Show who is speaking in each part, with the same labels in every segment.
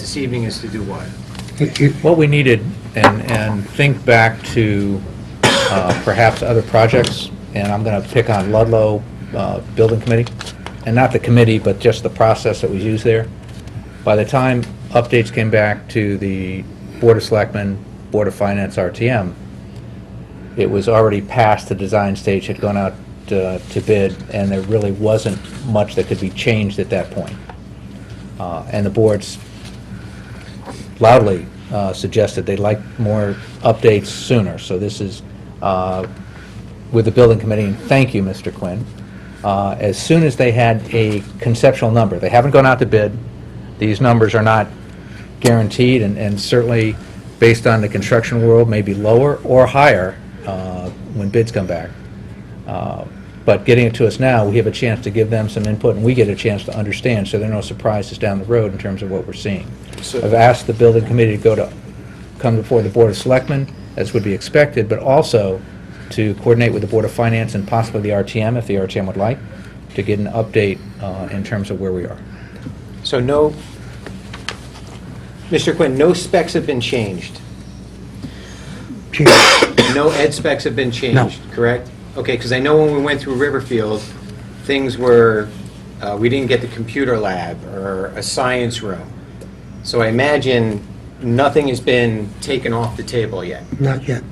Speaker 1: this evening is to do what?
Speaker 2: What we needed, and, and think back to uh, perhaps other projects, and I'm going to pick on Ludlow uh, Building Committee, and not the committee, but just the process that was used there. By the time updates came back to the Board of Selectmen, Board of Finance, RTM, it was already past the design stage, had gone out uh, to bid, and there really wasn't much that could be changed at that point. Uh, And the boards loudly uh, suggested they'd like more updates sooner. So this is uh, with the building committee, and thank you, Mr. Quinn. Uh, As soon as they had a conceptual number, they haven't gone out to bid, these numbers are not guaranteed, and and certainly, based on the construction world, maybe lower or higher uh, when bids come back. Uh, But getting it to us now, we have a chance to give them some input, and we get a chance to understand, so there are no surprises down the road in terms of what we're seeing.
Speaker 1: So-
Speaker 2: I've asked the building committee to go to, come before the Board of Selectmen, as would be expected, but also to coordinate with the Board of Finance and possibly the RTM, if the RTM would like, to get an update uh, in terms of where we are.
Speaker 1: So no, Mr. Quinn, no specs have been changed? No ed specs have been changed, correct? Okay, because I know when we went through Riverfield, things were, uh, we didn't get the computer lab or a science room. So I imagine nothing has been taken off the table yet.
Speaker 3: Not yet.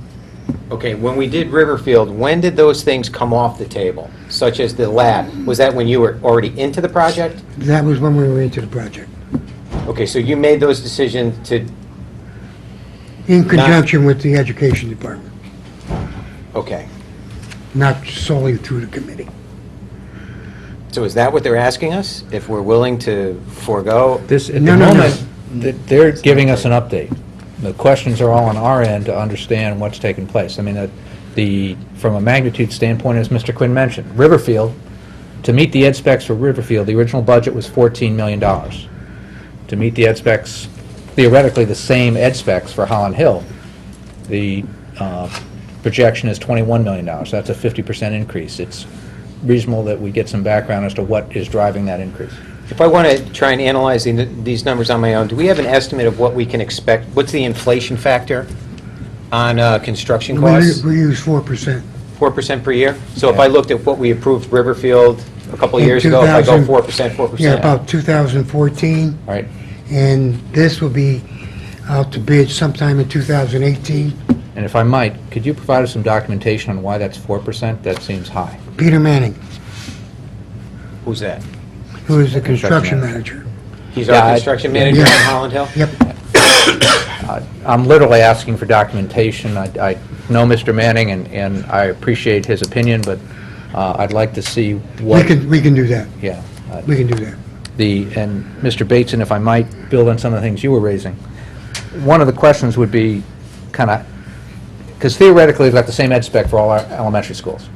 Speaker 1: Okay, when we did Riverfield, when did those things come off the table, such as the lab? Was that when you were already into the project?
Speaker 3: That was when we were into the project,
Speaker 1: Okay, so you made those decisions to,
Speaker 3: in conjunction with the education department,
Speaker 1: okay.
Speaker 3: not solely through the committee.
Speaker 1: So is that what they're asking us? If we're willing to forego?
Speaker 2: This, at the
Speaker 3: No, no, no.
Speaker 2: moment, th- they're giving us an update. The questions are all on our end to understand what's taking place. I mean, uh, the, from a magnitude standpoint, as Mr. Quinn mentioned, Riverfield, to meet the ed specs for Riverfield, the original budget was $14 million. To meet the ed specs, theoretically, the same ed specs for Holland Hill, the uh, projection is $21 million. That's a 50% increase. It's reasonable that we get some background as to what is driving that increase.
Speaker 1: If I want to try and analyze the- these numbers on my own, do we have an estimate of what we can expect? What's the inflation factor on uh, construction costs?
Speaker 3: We we use 4%.
Speaker 1: 4% per year? So if I
Speaker 2: Yeah.
Speaker 1: looked at what we approved Riverfield a couple of years ago, if I go 4%, 4%?
Speaker 3: Yeah, about 2014,
Speaker 2: All right?
Speaker 3: and this will be out to bid sometime in 2018.
Speaker 2: And if I might, could you provide us some documentation on why that's 4%? That seems high.
Speaker 3: Peter Manning,
Speaker 1: Who's that?
Speaker 3: who is the
Speaker 2: Construction
Speaker 3: construction manager.
Speaker 1: He's
Speaker 2: Yeah,
Speaker 1: our
Speaker 2: I-
Speaker 1: construction manager in
Speaker 3: Yeah.
Speaker 1: Holland Hill?
Speaker 3: Yep,
Speaker 2: I'm literally asking for documentation. I I know Mr. Manning, and and I appreciate his opinion, but uh, I'd like to see
Speaker 3: we
Speaker 2: what,
Speaker 3: can, we can do that.
Speaker 2: yeah. uh,
Speaker 3: We can do that.
Speaker 2: the, and Mr. Bateson, if I might build on some of the things you were raising, one of the questions would be kind of, because theoretically, we've got the same ed spec for all our elementary schools,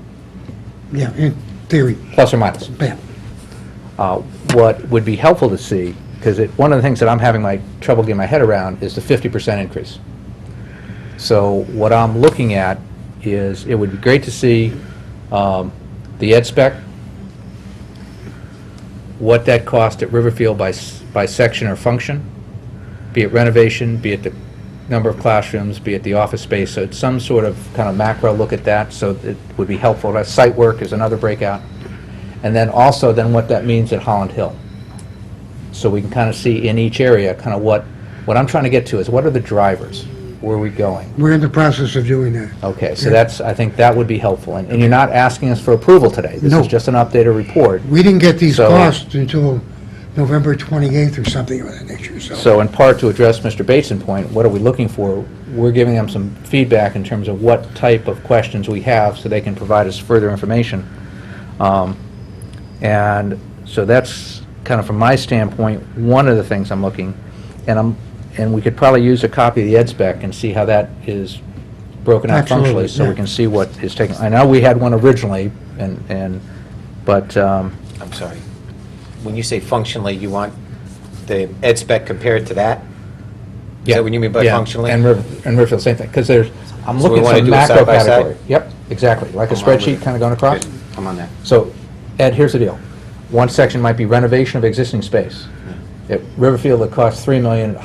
Speaker 3: Yeah, in theory.
Speaker 2: plus or minus.
Speaker 3: Yeah.
Speaker 2: uh, what would be helpful to see, because it, one of the things that I'm having my trouble getting my head around is the 50% increase. So what I'm looking at is, it would be great to see um, the ed spec, what that cost at Riverfield by, s- by section or function, be it renovation, be it the number of classrooms, be it the office space, so it's some sort of kind of macro look at that, so it would be helpful. That Site work is another breakout. And then also, then what that means at Holland Hill. So we can kind of see in each area, kind of what, what I'm trying to get to is, what are the drivers? Where are we going?
Speaker 3: We're in the process of doing that.
Speaker 2: Okay, so that's, I think that would be helpful. And and you're not asking us for approval today. This
Speaker 3: No.
Speaker 2: is just an updated report.
Speaker 3: We didn't get these
Speaker 2: So-
Speaker 3: costs until November 28th or something of that nature, so.
Speaker 2: So in part to address Mr. Bateson's point, what are we looking for? We're giving them some feedback in terms of what type of questions we have so they can provide us further information. Um, And so that's kind of from my standpoint, one of the things I'm looking, and I'm, and we could probably use a copy of the ed spec and see how that is broken out functionally.
Speaker 3: Absolutely,
Speaker 2: So we
Speaker 3: yeah.
Speaker 2: can see what is taken. I know we had one originally and, and, but, um,
Speaker 1: I'm sorry. When you say functionally, you want the ed spec compared to that? Is
Speaker 2: Yeah,
Speaker 1: that what you mean by
Speaker 2: yeah,
Speaker 1: functionally?
Speaker 2: And River- and Riverfield, same thing, because there's, I'm
Speaker 1: So we
Speaker 2: looking
Speaker 1: wanna
Speaker 2: for
Speaker 1: do
Speaker 2: a
Speaker 1: it
Speaker 2: macro
Speaker 1: side by side?
Speaker 2: category. Yep, exactly, like a
Speaker 1: I'm on with
Speaker 2: spreadsheet
Speaker 1: it.
Speaker 2: kind of going across.
Speaker 1: Good. I'm on that.
Speaker 2: So, Ed, here's the deal. One section might be renovation of existing space. At Riverfield, it costs 3 million,